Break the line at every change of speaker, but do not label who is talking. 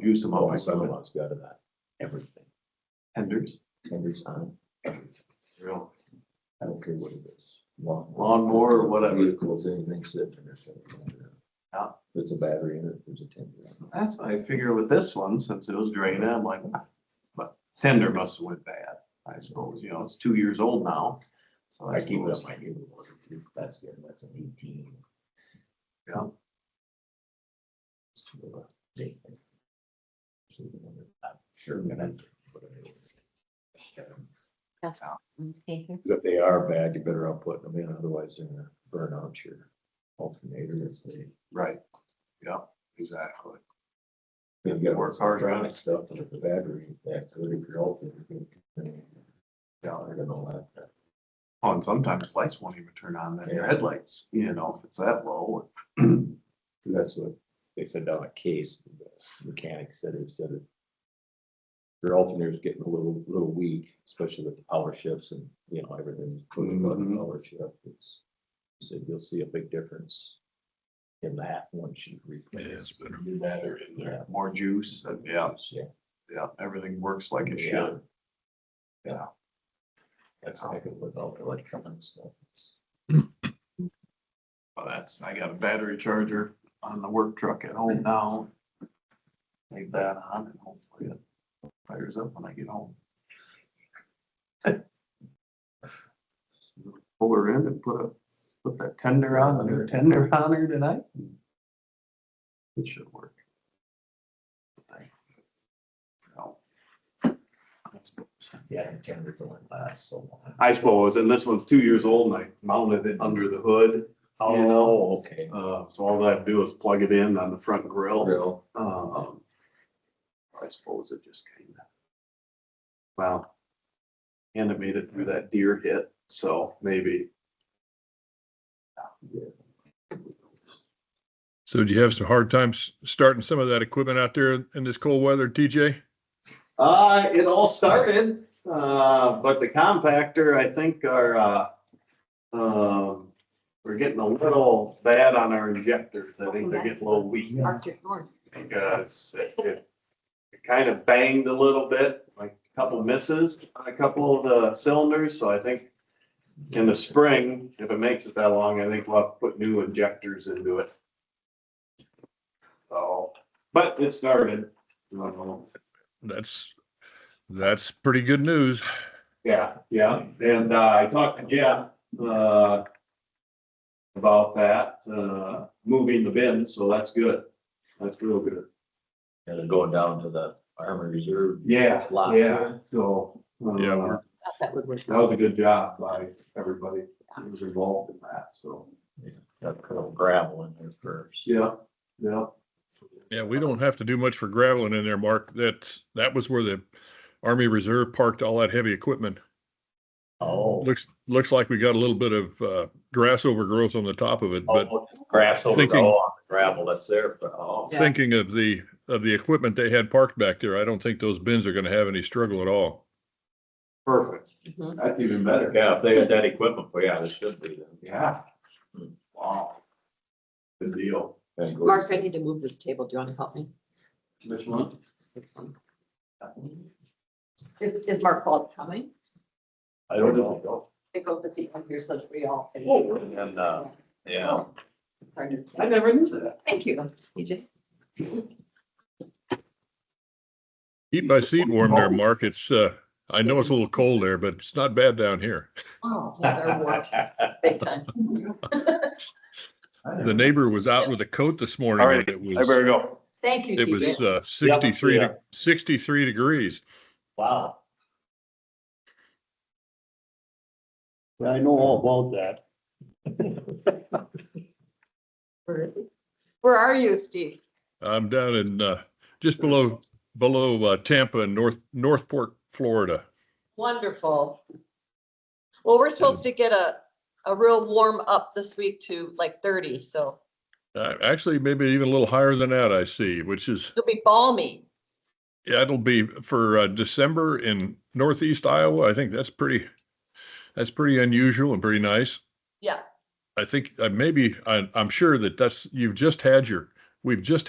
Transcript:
juice them up.
Oh, my son-in-law's got it, everything,
Tenders,
every time,
real
I don't care what it is. Lawn-
lawnmower or whatever.
Vehicles, anything sitting there.
Yeah.
There's a battery in it, there's a tender.
That's what I figure with this one, since it was drained, I'm like, "Ah, but tender must have went bad, I suppose, you know, it's two years old now. So
I
I
keep it
suppose,
up my neighbor water, that's good, that's an eighteen.
yeah,
It's for the day. So, I'm Sure. that I- but I-
Tough. Okay.
If they are bad, you better out putting them in, otherwise they're gonna burn out your alternator if they.
right, yeah, exactly.
They've got
Work hard on it.
electronic Stuff with the battery, that could if your alternator. Yeah, they're gonna laugh at that.
Oh, and sometimes lights won't even turn on, then your
Yeah.
headlights, you know, if it's that low.
'Cause That's what they said down at Case, the mechanic said it, said it. Your alternator's getting a little, little weak, especially with the power shifts and, you know, everything's push button
Mhm.
power shift, it's. he Said you'll see a big difference in that once you replace.
New battery in there. More juice, and yeah,
Yeah.
yeah, everything works like it
Yeah.
should. Yeah.
That's how I go with all the electronic stuff. It's-
Well, that's, I got a battery charger on the work truck at home now. Leave that on and hopefully it fires up when I get home. Pull her in and put a, put that tender on, a new tender on her tonight. It should work. No. That's what I'm saying.
Yeah, the tender going last so long.
I suppose, and this one's two years old and I mounted it under the hood. you know,
Oh, okay.
uh, so all I do is plug it in on the front grill.
Real,
Um, I suppose it just kind of. Well. And it made it through that deer hit, so maybe.
So do you have some hard times starting some of that equipment out there in this cold weather, TJ?
Uh, it all started, uh, but the compactor, I think our, uh, um, we're getting a little bad on our injectors. I think they're getting a little weak.
Arctic North.
because it, it, it kind of banged a little bit, like a couple misses on a couple of the cylinders, so I think in the spring, if it makes it that long, I think we'll have to put new injectors into it. So, but it started, um,
That's, that's pretty good news.
yeah, yeah, and uh, I talked to Jeff, uh. About that, uh, moving the bin, so that's good, that's real good.
and then going down to the armor reserve.
Yeah,
Lot.
yeah, so.
Yeah,
uh,
we're-
That would work.
That was a good job by everybody who was involved in that, so.
Got a little gravel in there first.
Yeah, yeah.
Yeah, we don't have to do much for graveling in there, Mark. That's, that was where the Army Reserve parked all that heavy equipment.
Oh,
Looks, looks like we got a little bit of, uh, grass overgrowth on the top of it, but
oh, grass over,
thinking-
oh, gravel, that's there, but oh.
Yeah.
thinking of the, of the equipment they had parked back there, I don't think those bins are gonna have any struggle at all.
Perfect.
Mhm.
That's even
Yeah, if they had that equipment, well, yeah, this should be then.
Yeah. Wow. Good deal.
And go-
Mark, I need to move this table. Do you want to help me?
This one?
This one. Is, is Mark Paul coming?
I don't know.
They go with the end here so that we all. can-
Oh, and, uh, Yeah,
Sorry to-
I never knew that.
Thank you, EJ.
Keep my seat warm there, Mark. It's, uh, I know it's a little cold there, but it's not bad down here.
Oh, yeah, they're warped big time.
The neighbor was out with a coat this morning.
All right,
and it
I
was-
better go.
Thank you,
It was
TJ.
uh, 63,
yeah.
de- 63 degrees.
Wow.
I know all about that.
Where are you, Steve?
I'm down in, uh, just below, below uh, Tampa in North, Northport, Florida.
Wonderful. Well, we're supposed to get a, a real warm up this week to like thirty, so
Uh, Actually, maybe even a little higher than that, I see, which is,
it'll be balmy.
yeah, it'll be for uh, December in Northeast Iowa. I think that's pretty, that's pretty unusual and pretty nice.
Yeah.
I think uh, maybe, I, I'm sure that that's, you've just had your, we've just